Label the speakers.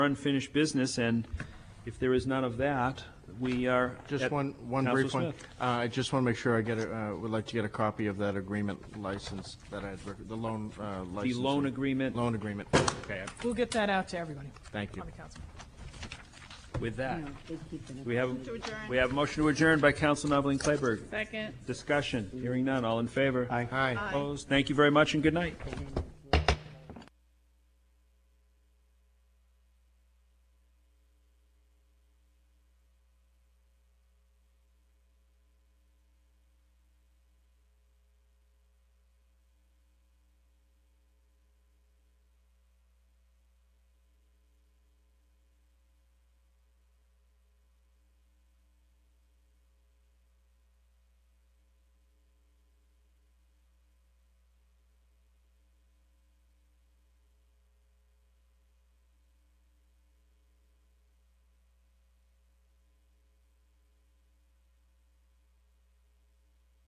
Speaker 1: unfinished business, and if there is none of that, we are.
Speaker 2: Just
Speaker 1: at-
Speaker 2: one, one brief
Speaker 1: Counselor
Speaker 2: one.
Speaker 1: Smith.
Speaker 2: Uh, I just want to make sure I get, a- uh, would like to get a copy of that agreement license that I had, rec- the loan uh, license.
Speaker 1: loan agreement.
Speaker 2: Loan agreement. Okay,
Speaker 3: We'll get that out to everybody
Speaker 2: thank you.
Speaker 3: on the council.
Speaker 1: With that,
Speaker 4: They keep it.
Speaker 1: we have,
Speaker 5: To adjourn.
Speaker 1: we have a motion to adjourn by Counsel Noveline Clayburgh.
Speaker 5: Second.
Speaker 1: Discussion, hearing none, all in favor?
Speaker 2: Hi.
Speaker 1: Opposed? Thank you very much and good night.
Speaker 4: up.